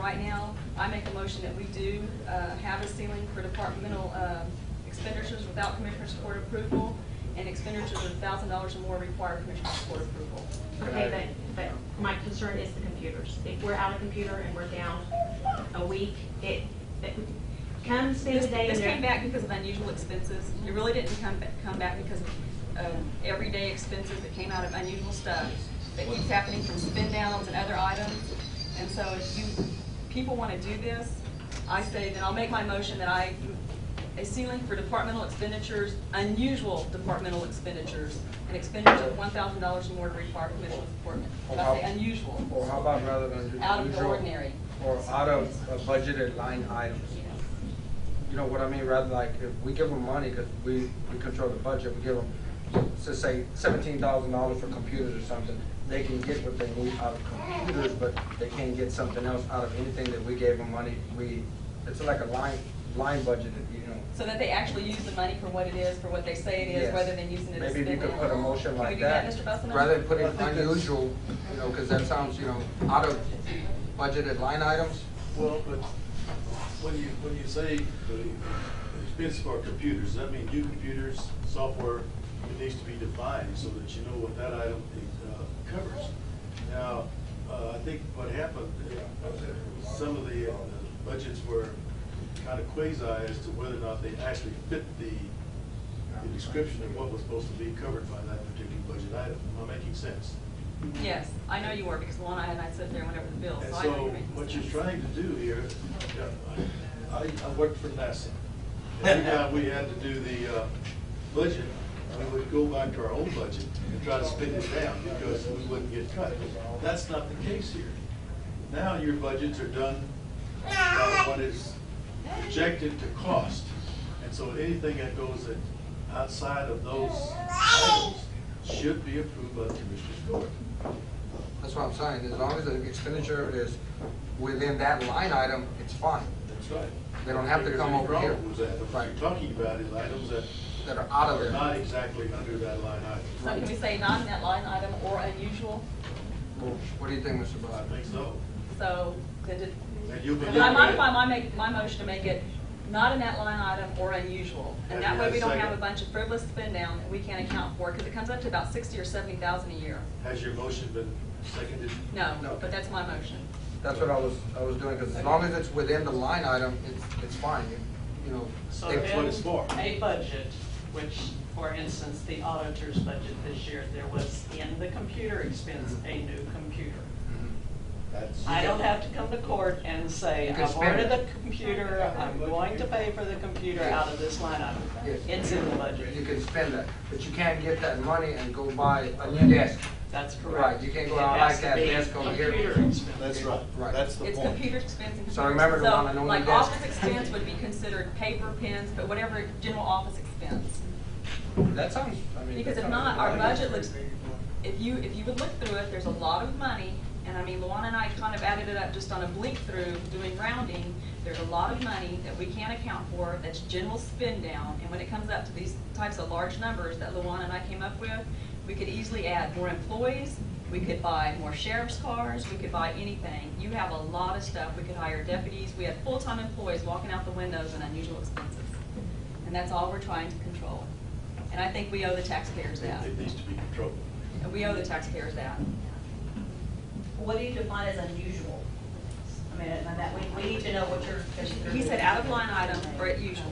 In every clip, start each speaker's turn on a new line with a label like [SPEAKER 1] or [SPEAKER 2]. [SPEAKER 1] right now, I make a motion that we do uh, have a ceiling for departmental um, expenditures without Commissioner's Court approval, and expenditures of thousand dollars or more require Commissioner's Court approval.
[SPEAKER 2] Okay, but, but my concern is the computers. If we're out of computer and we're down a week, it, it- come spend
[SPEAKER 1] This
[SPEAKER 2] a day in
[SPEAKER 1] this came
[SPEAKER 2] there.
[SPEAKER 1] back because of unusual expenses. It really didn't come, ba- come back because of um, everyday expenses that came out of unusual stuff that keeps happening from spin downs and other items. And so if you, people want to do this, I say, then I'll make my motion that I, a ceiling for departmental expenditures, unusual departmental expenditures, an expenditure of one thousand dollars or more to require commission support. If I say
[SPEAKER 3] Or
[SPEAKER 1] unusual,
[SPEAKER 3] how about rather than do
[SPEAKER 1] out of the
[SPEAKER 3] usual-
[SPEAKER 1] ordinary.
[SPEAKER 3] Or out of a budgeted line items. You know what I mean? Rather like, if we give them money, because we, we control the budget, we give them, so say seventeen thousand dollars for computers or something, they can get what they need out of computers, but they can't get something else out of anything that we gave them money. We, it's like a line, line budgeted, you know?
[SPEAKER 1] So that they actually use the money for what it is, for what they say it is,
[SPEAKER 3] Yes.
[SPEAKER 1] rather than using it as.
[SPEAKER 3] Maybe if you could put a motion
[SPEAKER 1] Can we
[SPEAKER 3] like
[SPEAKER 1] do that,
[SPEAKER 3] that.
[SPEAKER 1] Mr. Busman?
[SPEAKER 3] Rather than putting
[SPEAKER 4] Well, I think that's-
[SPEAKER 3] unusual, you know, because that sounds, you know, out of budgeted line items.
[SPEAKER 4] Well, but when you, when you say the expense for computers, that means new computers, software, it needs to be defined so that you know what that item uh, covers. Now, uh, I think what happened, uh, some of the uh, budgets were kind of quasi as to whether or not they actually fit the the description of what was supposed to be covered by that particular budget item. Am I making sense?
[SPEAKER 1] Yes, I know you were, because Luana and I sit there whenever the bill,
[SPEAKER 4] And
[SPEAKER 1] so I know
[SPEAKER 4] so
[SPEAKER 1] you're making
[SPEAKER 4] what you're
[SPEAKER 1] sense.
[SPEAKER 4] trying to do here, uh, I, I worked for NASA. Every time we had to do the uh, budget, we would go back to our own budget and try to spin it down because we wouldn't get cut. That's not the case here. Now your budgets are done by what is projected to cost. And so anything that goes that- outside of those items should be approved by the Commissioners Court.
[SPEAKER 3] That's what I'm saying, as long as the expenditure is within that line item, it's fine,
[SPEAKER 4] That's right.
[SPEAKER 3] They don't have to come over here.
[SPEAKER 4] There's any problem with that. What you're talking about is items that
[SPEAKER 3] that are out of
[SPEAKER 4] are not
[SPEAKER 3] there.
[SPEAKER 4] exactly under that line item.
[SPEAKER 1] So can we say not in that line item or unusual,
[SPEAKER 3] What do you think, Mr.
[SPEAKER 4] I
[SPEAKER 3] Bud?
[SPEAKER 4] think so.
[SPEAKER 1] so then just.
[SPEAKER 4] And you'll be
[SPEAKER 1] Then I
[SPEAKER 4] looking at-
[SPEAKER 1] modify my make, my motion to make it not in that line item or unusual, and that way we don't have a bunch of frivolous spend down that we can't account for, because it comes up to about sixty or seventy thousand a year.
[SPEAKER 4] Has your motion been seconded?
[SPEAKER 1] No,
[SPEAKER 3] No.
[SPEAKER 1] but that's my motion.
[SPEAKER 3] That's what I was, I was doing, because as long as it's within the line item, it's, it's fine, you you know.
[SPEAKER 5] So
[SPEAKER 3] they-
[SPEAKER 4] That's what it's for.
[SPEAKER 5] in a budget, which, for instance, the auditor's budget this year, there was in the computer expense a new computer.
[SPEAKER 4] That's-
[SPEAKER 5] I don't have to come to court and say,
[SPEAKER 3] You can
[SPEAKER 5] I've
[SPEAKER 3] spend
[SPEAKER 5] ordered
[SPEAKER 3] it.
[SPEAKER 5] the computer, I'm going to pay for the computer out of this line item.
[SPEAKER 3] Yes.
[SPEAKER 5] It's in the
[SPEAKER 3] You
[SPEAKER 5] budget.
[SPEAKER 3] can spend that, but you can't get that money and go buy a new desk.
[SPEAKER 5] That's
[SPEAKER 3] Right,
[SPEAKER 5] correct.
[SPEAKER 3] you can't go
[SPEAKER 5] It
[SPEAKER 3] out
[SPEAKER 5] has
[SPEAKER 3] like
[SPEAKER 5] to
[SPEAKER 3] that
[SPEAKER 5] be
[SPEAKER 3] desk over here.
[SPEAKER 5] Computer expense.
[SPEAKER 4] That's right.
[SPEAKER 3] Right.
[SPEAKER 4] That's the
[SPEAKER 1] It's
[SPEAKER 4] point.
[SPEAKER 1] computer expense and computer.
[SPEAKER 3] So remember,
[SPEAKER 1] expense.
[SPEAKER 3] Luana,
[SPEAKER 1] So,
[SPEAKER 3] no
[SPEAKER 1] like
[SPEAKER 3] desk.
[SPEAKER 1] office expense would be considered paper, pens, but whatever general office expense.
[SPEAKER 3] That sounds, I mean.
[SPEAKER 1] Because
[SPEAKER 3] that
[SPEAKER 1] if
[SPEAKER 3] sounds-
[SPEAKER 1] not, our budget looks, if you, if you would look through it, there's a lot of money. And I mean, Luana and I kind of added it up just on a blink through, doing rounding. There's a lot of money that we can't account for, that's general spend down. And when it comes up to these types of large numbers that Luana and I came up with, we could easily add more employees, we could buy more sheriff's cars, we could buy anything. You have a lot of stuff. We could hire deputies. We have full-time employees walking out the windows and unusual expenses. And that's all we're trying to control. And I think we owe the taxpayers that.
[SPEAKER 4] It needs to be controlled.
[SPEAKER 1] And we owe the taxpayers that.
[SPEAKER 6] What do you define as unusual? I mean, and that, we, we need to know what you're considering.
[SPEAKER 1] He said out of line item or at usual.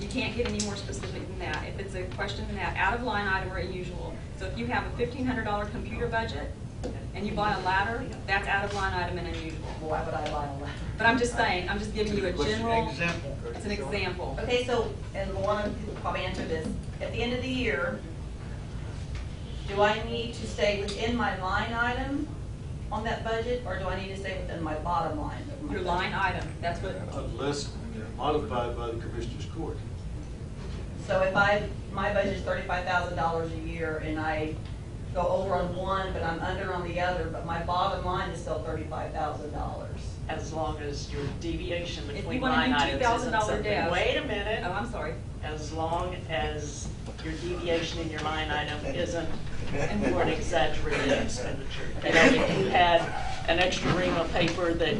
[SPEAKER 1] You can't get any more specific than that. If it's a question than that, out of line item or at usual. So if you have a fifteen hundred dollar computer budget and you buy a ladder, that's out of line item and unusual.
[SPEAKER 6] Why would I lie on
[SPEAKER 1] But I'm just saying, I'm just giving you a general,
[SPEAKER 7] Example.
[SPEAKER 1] it's an example.
[SPEAKER 6] that? Okay, so, and Luana probably answered this, at the end of the year, do I need to stay within my line item on that budget, or do I need to stay within my bottom line? of my
[SPEAKER 1] Your
[SPEAKER 6] budget?
[SPEAKER 1] line item, that's what, oh,
[SPEAKER 4] Unless modified by the Commissioners Court.
[SPEAKER 6] So if I, my budget's thirty-five thousand dollars a year, and I go over on one, but I'm under on the other, but my bottom line is still thirty-five thousand dollars.
[SPEAKER 5] As long as your deviation
[SPEAKER 1] you
[SPEAKER 5] between
[SPEAKER 1] wanna do
[SPEAKER 5] line items isn't
[SPEAKER 1] $2,000
[SPEAKER 5] something.
[SPEAKER 1] desk-
[SPEAKER 5] Wait a
[SPEAKER 1] oh,
[SPEAKER 5] minute.
[SPEAKER 1] I'm sorry.
[SPEAKER 5] as long as your deviation in your line item isn't more an exaggerated expenditure. You know, if you had an extra ream of paper that